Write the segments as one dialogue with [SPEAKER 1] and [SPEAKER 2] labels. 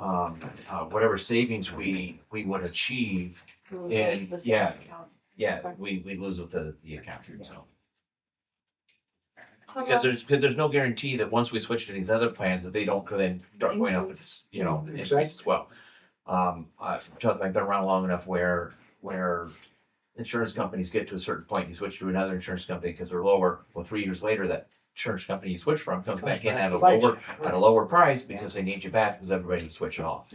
[SPEAKER 1] um, uh, whatever savings we, we would achieve, And, yeah. yeah, we, we lose with the, the account, so.
[SPEAKER 2] Uh-huh.
[SPEAKER 1] Because there's, because there's no guarantee that once we switch to these other plans, that they don't then start going up, it's, you know, increase as well. Um, uh, trust me, I've been around long enough where, where insurance companies get to a certain point, you switch to another insurance company because they're lower. Well, three years later, that insurance company you switch from comes back in at a lower, at a lower price because they need you back because everybody's switching off.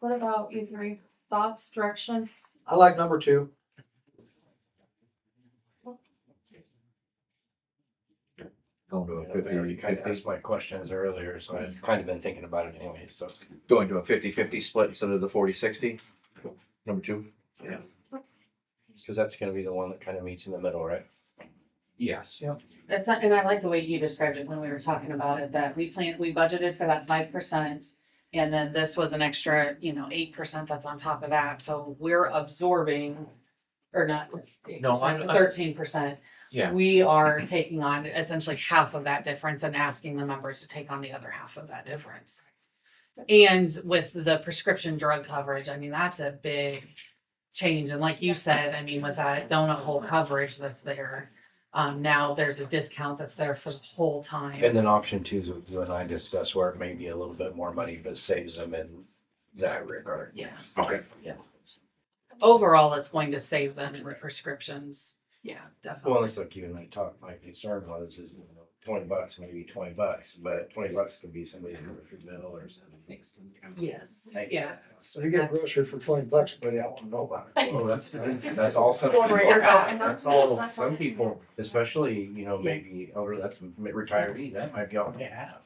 [SPEAKER 2] What about you three? Thoughts, direction?
[SPEAKER 3] I like number two.
[SPEAKER 4] Going to a
[SPEAKER 5] I already
[SPEAKER 4] fifty,
[SPEAKER 5] kind of
[SPEAKER 4] fifty,
[SPEAKER 5] asked my questions earlier, so I've kind of been thinking about it anyway, so.
[SPEAKER 4] going to a fifty, fifty split instead of the forty, sixty, number two.
[SPEAKER 5] Because that's gonna be the one that kind of meets in the middle, right?
[SPEAKER 1] Yes.
[SPEAKER 6] That's not, and I like the way you described it when we were talking about it, that we planned, we budgeted for that five percent. And then this was an extra, you know, eight percent that's on top of that, so we're absorbing, or not,
[SPEAKER 1] No, I'm- I'm-
[SPEAKER 6] thirteen percent.
[SPEAKER 1] Yeah.
[SPEAKER 6] We are taking on essentially half of that difference and asking the members to take on the other half of that difference. And with the prescription drug coverage, I mean, that's a big change, and like you said, I mean, with that donut hole coverage that's there. Um, now there's a discount that's there for the whole time.
[SPEAKER 5] And then option two is what you and I discussed where it may be a little bit more money, but saves them in that regard.
[SPEAKER 6] Yeah.
[SPEAKER 5] Okay.
[SPEAKER 6] Overall, it's going to save them in prescriptions. Yeah,
[SPEAKER 5] Well,
[SPEAKER 6] definitely.
[SPEAKER 5] it's like you and I talked, my concern was is, you know, twenty bucks, maybe twenty bucks, but twenty bucks could be somebody's grocery bill or something.
[SPEAKER 6] Yes,
[SPEAKER 5] Thank you.
[SPEAKER 6] yeah.
[SPEAKER 3] So you get a grocery for twenty bucks, buddy, I don't wanna know about it.
[SPEAKER 5] Oh, that's, that's all some
[SPEAKER 2] Don't worry, you're
[SPEAKER 5] people,
[SPEAKER 2] fine.
[SPEAKER 5] that's all, some people, especially, you know, maybe over, that's retiree, that might be all they have.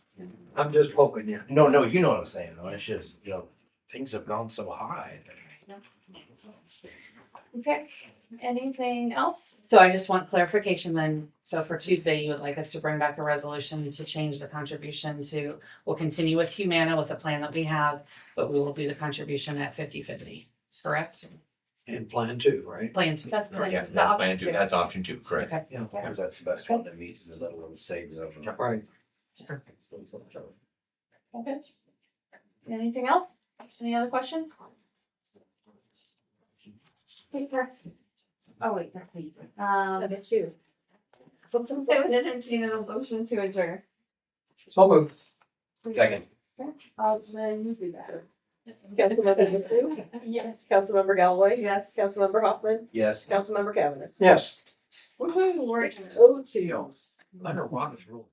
[SPEAKER 3] I'm just poking you.
[SPEAKER 5] No, no, you know what I'm saying, though, it's just, you know, things have gone so high.
[SPEAKER 2] Okay, anything else?
[SPEAKER 6] So I just want clarification then. So for Tuesday, you would like us to bring back a resolution to change the contribution to, we'll continue with Humana with the plan that we have, but we will do the contribution at 50-50. correct?
[SPEAKER 3] And plan two, right?
[SPEAKER 6] Plan two.
[SPEAKER 2] That's plan,
[SPEAKER 1] Yes,
[SPEAKER 2] the
[SPEAKER 1] that's plan
[SPEAKER 2] option
[SPEAKER 1] two,
[SPEAKER 2] two.
[SPEAKER 1] that's option two, correct.
[SPEAKER 3] Yeah.
[SPEAKER 5] Because that's the best one that meets the little one saves of.
[SPEAKER 3] Right.
[SPEAKER 2] Okay. Anything else? Any other questions? Hey, Chris. Oh, wait, that's me. Um.
[SPEAKER 7] Number two.
[SPEAKER 2] I would entertain a motion to adjourn.
[SPEAKER 3] So moved.
[SPEAKER 5] Second.
[SPEAKER 2] Alderman, you do that.
[SPEAKER 7] Councilmember Mizzou? Yes. Councilmember Galloway?
[SPEAKER 2] Yes.
[SPEAKER 7] Councilmember Hoffman?
[SPEAKER 5] Yes.
[SPEAKER 7] Councilmember Cavanis?
[SPEAKER 3] Yes.
[SPEAKER 2] Woohoo, we're adjourned.
[SPEAKER 7] Six oh two.
[SPEAKER 3] Underwater's rule.